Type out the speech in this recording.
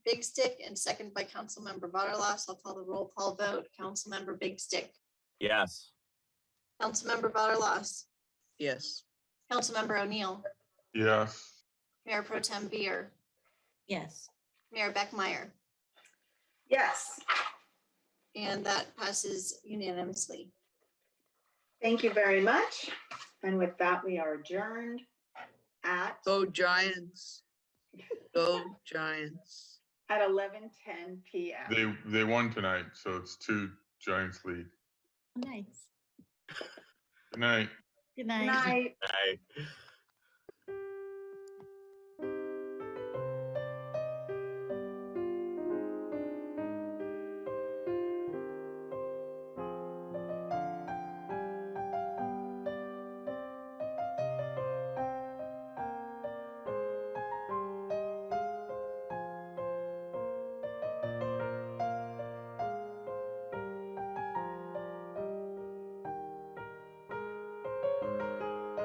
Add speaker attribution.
Speaker 1: Big Stick and second by Councilmember Butterlos. I'll call the roll call vote. Councilmember Big Stick,
Speaker 2: Yes.
Speaker 1: Councilmember Butterlos,
Speaker 3: Yes.
Speaker 1: Councilmember O'Neill,
Speaker 4: yes,
Speaker 1: Mayor Pro Tem Beer,
Speaker 5: yes,
Speaker 1: Mayor Beckmeyer,
Speaker 6: Yes,
Speaker 1: and that passes unanimously.
Speaker 6: thank you very much. And with that, we are adjourned at,
Speaker 3: Go Giants. Go Giants.
Speaker 6: at 11:10 PM.
Speaker 4: they, they won tonight, so it's two Giants lead.
Speaker 5: Oh, nice.
Speaker 4: Good night.
Speaker 5: Good
Speaker 6: Good
Speaker 5: night.
Speaker 6: night.
Speaker 2: Aye.